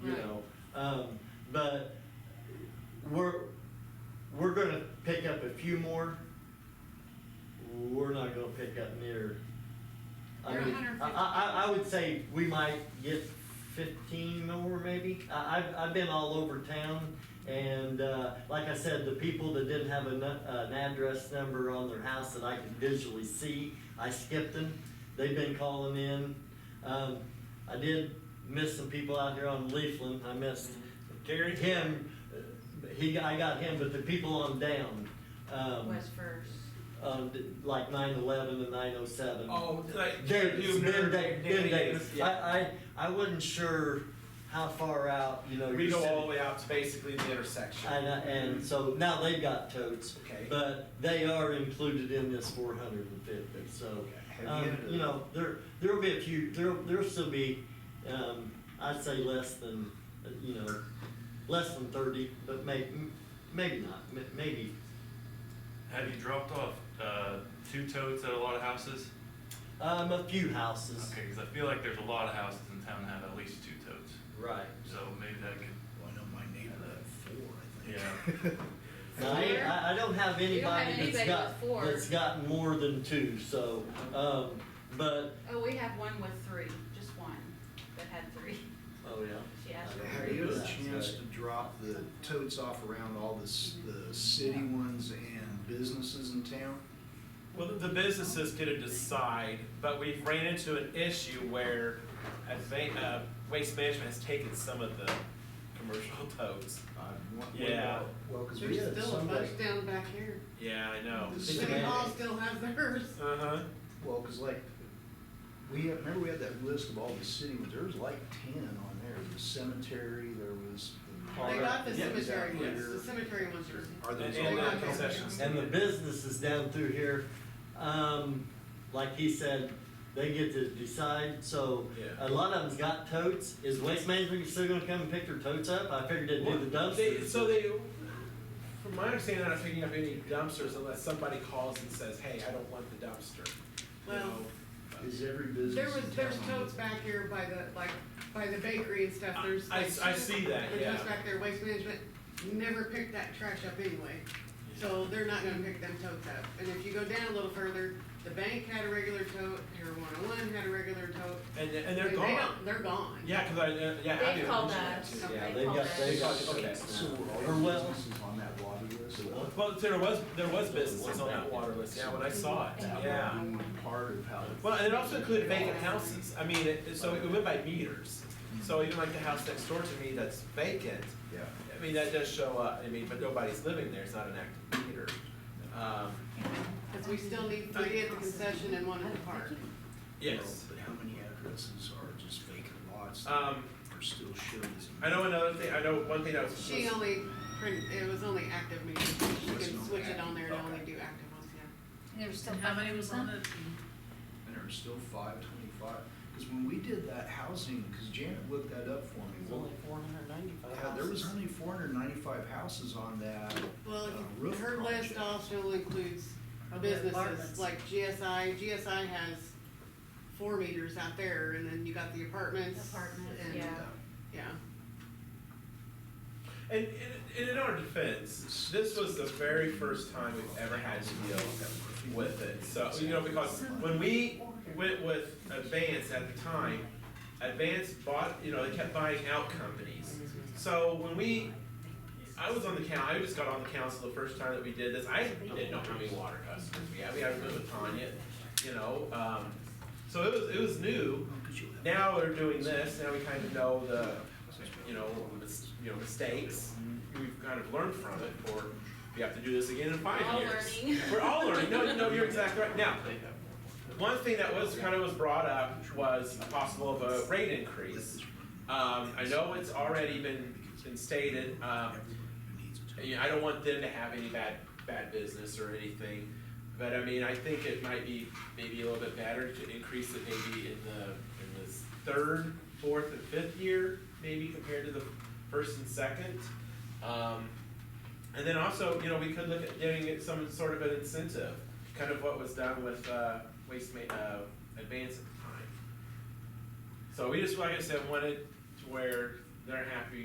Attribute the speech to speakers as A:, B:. A: Um, but we're, we're gonna pick up a few more. We're not gonna pick up near. I
B: They're
A: mean,
B: 150.
A: I, I, I would say we might get fifteen more maybe. I, I've, I've been all over town and, uh, like I said, the people that didn't have an, an address number on their house that I could visually see, I skipped them. They've been calling in. Um, I did miss some people out here on Leafland. I missed
C: Terry?
A: him, uh, he, I got him, but the people on down, um,
B: was first.
A: on d- like nine eleven and nine oh seven.
C: Oh, like.
A: There, it's
C: Hubner,
A: been day, been days.
C: Danny Davis,
A: I,
C: Yeah.
A: I, I wasn't sure how far out, you know.
C: We
A: your
C: go
A: city-
C: all the way out to basically the intersection.
A: And, I- and so now they've got totes,
C: Okay.
A: but they are included in this four hundred and fifty, so.
C: Okay.
A: Um,
C: Have you-
A: you know, there, there'll be a few, there'll, there'll still be, um, I'd say less than, uh, you know, less than thirty, but may, m- maybe not, m- maybe.
D: Have you dropped off uh, two totes at a lot of houses?
A: Um, a few houses.
D: Okay, because I feel like there's a lot of houses in town that have at least two totes.
A: Right.
D: So maybe that could.
C: Oh,
E: Well, I know my neighbor had four, I think.
D: Yeah.
A: Now, I, ain't- I I don't have
B: You don't
A: anybody
B: have
A: that's
B: anybody
A: got,
B: with four.
A: that's got more than two, so, um, but,
B: Oh, we have one with three, just one that had three.
A: oh, yeah.
B: She asked for
A: I
E: Have
A: don't
E: you
A: know.
B: three.
E: had a chance to drop the totes off around all the, s- the city ones and businesses in town?
C: Well, the businesses get to decide, but we've ran into an issue where I think, uh, Waste Management has taken some of the commercial totes.
E: I want-
C: Yeah.
E: Well, cause we
F: There's
E: had
F: still a
E: somebody,
F: bunch down back here.
C: Yeah, I know.
E: The
F: City
E: city-
F: Hall still has theirs.
C: Uh-huh.
E: well, cause like, we had, remember we had that list of all the city ones, there was like ten on there, the cemetery, there was the park.
F: They got the
C: Yeah,
F: cemetery
E: exactly.
F: ones, the cemetery ones are.
E: Are
C: And
E: those
C: and
E: all?
C: the concessions.
A: And the businesses down through here, um, like he said, they get to decide, so
C: Yeah.
A: a lot of them's got totes. Is Waste Management still gonna come and pick their totes up? I figured they'd do the
C: They-
A: dumpsters.
C: So they, from my understanding, they're not picking up any dumpsters unless somebody calls and says, hey, I don't want the dumpster. You
F: Well-
C: know,
E: Is every business
F: There was,
E: in
F: there's
E: town on
F: totes
E: the-
F: back here by the, like, by the bakery and stuff,
C: I-
F: there's.
C: I-
F: like,
C: I see that,
F: there's
C: yeah.
F: totes back there, waste management never picked that trash up anyway. So they're not gonna pick them totes up. And if you go down a little further, the bank had a regular tote, Hero one oh one had a regular tote.
C: And, and they're
F: They
C: gone.
F: don't- They're gone.
C: Yeah, cause I, uh, yeah. I
B: They
C: do.
B: called us.
C: Yeah.
A: Yeah,
B: They
A: they've
B: call
A: got,
B: that-
A: they've got
C: Okay.
A: totes
E: So
A: now.
E: were
A: Or
E: all the
A: well,
E: businesses on that lobby list?
A: Well,
C: Well, there was, there was businesses on that water list, yeah, when I saw it,
E: That
C: yeah.
E: would be Part of how.
C: Well, and it also included vacant houses, I mean, it, so it went by meters. So even like the house next door to me that's vacant,
E: Yeah.
C: I mean, that does show up, I mean, but nobody's living there, it's not an active meter. Um,
F: Cause we still need three at the concession and one at the park.
C: yes,
E: But how many addresses are just vacant lots that
C: um,
E: are still showed as?
C: I know another thing, I know one thing that was.
F: She only, print it was only active meters, she can switch it on there and only do active ones, yeah.
G: There's still. How many was on it?
E: And are still five twenty-five, because when we did that housing, because Janet looked that up for me.
H: There's
E: well,
H: only four hundred ninety-five
E: Yeah, there was only four hundred ninety-five houses on that.
F: Well,
E: uh,
F: if you-
E: roof
F: her list
E: project.
F: also includes
H: Or the
F: businesses,
H: apartments.
F: like GSI, GSI has four meters out there, and then you got the apartments.
B: Apartments,
F: and-
B: yeah.
F: Yeah,
C: And, and- and in our defense, this was the very first time we've ever had to deal with it. So, you know, because when we went with Advance at the time, Advance bought, you know, they kept buying out companies. So when we, I was on the coun, I just got on the council the first time that we did this, I didn't know how many water customers we had, we had one with Tanya, you know, um, so it was, it was new. Now we're doing this, now we kind of know the, you know, mis- you know, mistakes, we've kind of learned from it, or we have to do this again in five
B: All
C: years.
B: learning.
C: We're all learning. No, no, you're exactly right. Now, one thing that was kind of was brought up was possible of a rate increase. Um, I know it's already been, been stated, um, you know, I don't want them to have any bad, bad business or anything. But I mean, I think it might be maybe a little bit better to increase it maybe in the, in this third, fourth and fifth year, maybe compared to the first and second. Um, and then also, you know, we could look at giving it some sort of an incentive, kind of what was done with, uh, waste ma- uh, advance at the time. So we just, like I said, wanted to where they're happy